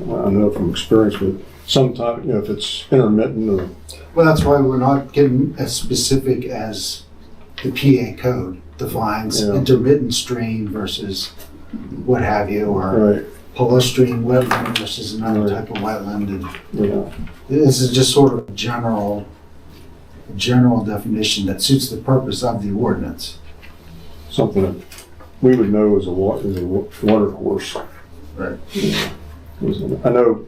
I know from experience with some type, you know, if it's intermittent or, Well, that's why we're not getting as specific as the PA code defines Yeah. intermittent stream versus what have you, or right, polar stream wetland versus another Right. type of wetland. And you know, this is just sort of a general, general definition that suits the purpose of the ordinance. something that we would know is a wa, is a wa- water course. Right. You know, is it- I know,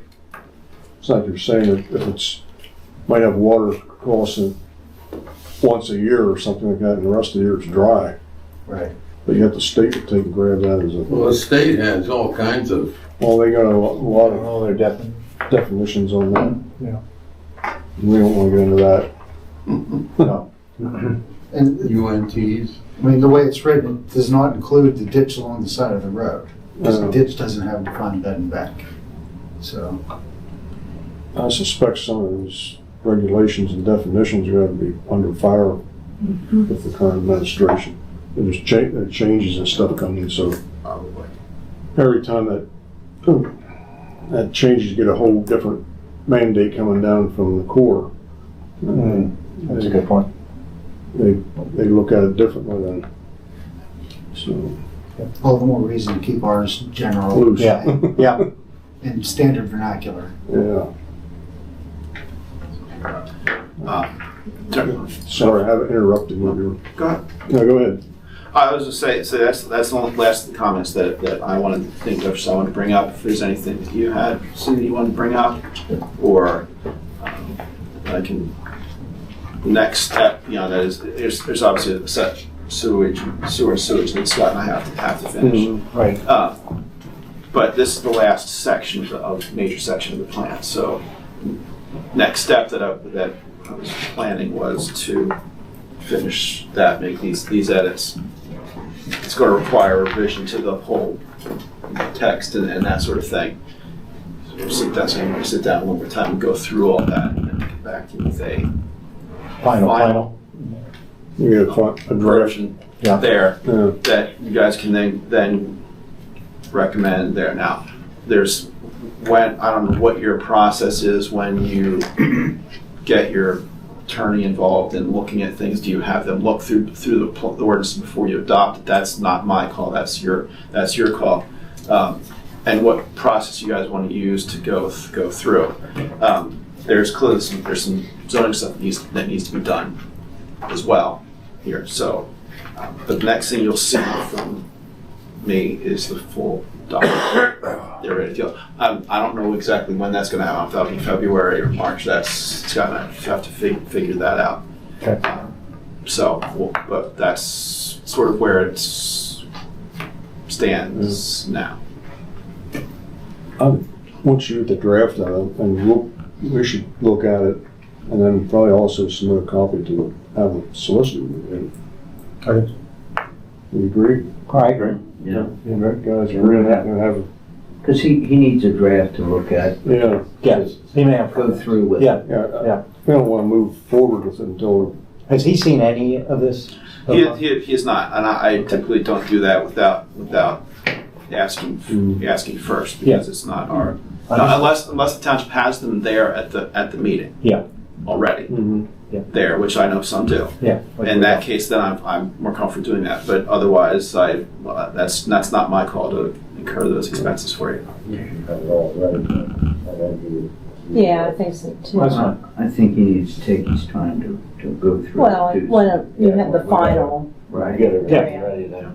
it's like you're saying, if if it's, might have water crossing once a year or something like that, and the rest of the year it's dry, Right. but you have the state to take and grab that as Well, a, the state has all kinds of, well, they got a lo- lot of Oh, they're definitely. definitions on that. Yeah. We don't wanna get into that. No. And, UNTs. I mean, the way it's written, it does not include the ditch along the side of the road. Because Um, the ditch doesn't have a front bed and back. So, I suspect some of those regulations and definitions are going to be under fire with the current administration. There's cha- there are changes and stuff coming, so every time that, that changes, you get a whole different mandate coming down from the Corps. Mm, That's a good point. They, they look at it differently than, so, all the more reason to keep ours general loose. Yeah. Yeah. and standard vernacular. Yeah. Sorry. Sorry, I haven't interrupted you. You Go ahead. were- No, go ahead. I was just say, so that's that's the only last comments that, that I wanted to think of. So I want to bring up if there's anything that you had, Cindy, you want to bring up, or um, I can. The next step, you know, that is there's, there's obviously a set sewage sewer sewage that Scott and I have to have to finish. Right. Uh, But this is the last section of the, of major section of the plan, so next step that I, that I was planning was to finish that, make these, these edits. It's gonna require revision to the whole text and, and that sort of thing. So we'll sit down, so I'm gonna sit down one more time and go through all that and then get back to you with a Final, final. Final. You get a fi- a direction. version Yeah. there Yeah. that you guys can then, then recommend there. Now, there's when, I don't know what your process is when you get your attorney involved in looking at things. Do you have them look through, through the pl- the ordinance before you adopt it? That's not my call, that's your, that's your call. Um, And what process you guys want to use to go, th- go through. Um, There's clearly some, there's some zoning stuff that needs, that needs to be done as well here, so. Um, The next thing you'll see from me is the full document. They're ready to go. Um, I don't know exactly when that's gonna happen, if that'll be February or March, that's, it's gonna, you have to fi- figure that out. Okay. Um, So, well, but that's sort of where it stands now. I want you to draft that, and we'll, we should look at it, and then probably also submit a copy to have a solicitor. review it. Okay. You agree? I agree. Yeah, You guys are really not gonna have, a- because he, he needs a draft to look at, yeah, Yes. He may have. go through with. Yeah. yeah. I- Yeah. We don't wanna move forward with it until, Has he seen any of this? He, he, he is not, and I I typically don't do that without, without asking, Mm. asking first, because it's not our, Understood. unless, unless the township has them there at the, at the meeting. Yeah. Already. there, which I know some do. Yeah. In that case, then I'm, I'm more comfortable doing that. But otherwise, I well, that's that's not my call to incur those expenses for you. Yeah, I think so That's too. fine. I think he needs to take his time to, to go through. Well, and do- when you have the final, Right,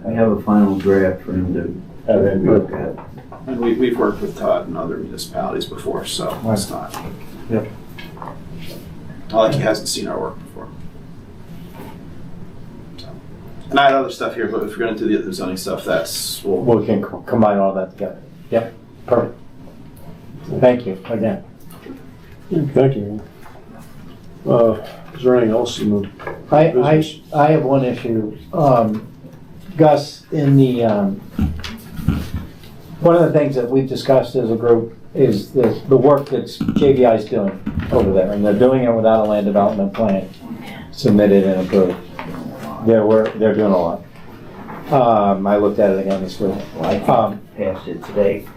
we have a final draft for him to look at. And we, we've worked with Todd and other municipalities before, so it's not. Yep. Not like he hasn't seen our work before. So. And I had other stuff here, but if we're going to do the other zoning stuff, that's well, We can co- combine all that together. Yep, perfect. Thank you again. thank you. Uh, is there anything else in the I, I, business? I have one issue. Um, Gus, in the, um, one of the things that we've discussed as a group is the, the work that's JVI's doing over there, and they're doing it without a land development plan submitted and approved. They're, wor- they're doing a lot. Um, I looked at it again this week. Well, I Um, passed it today.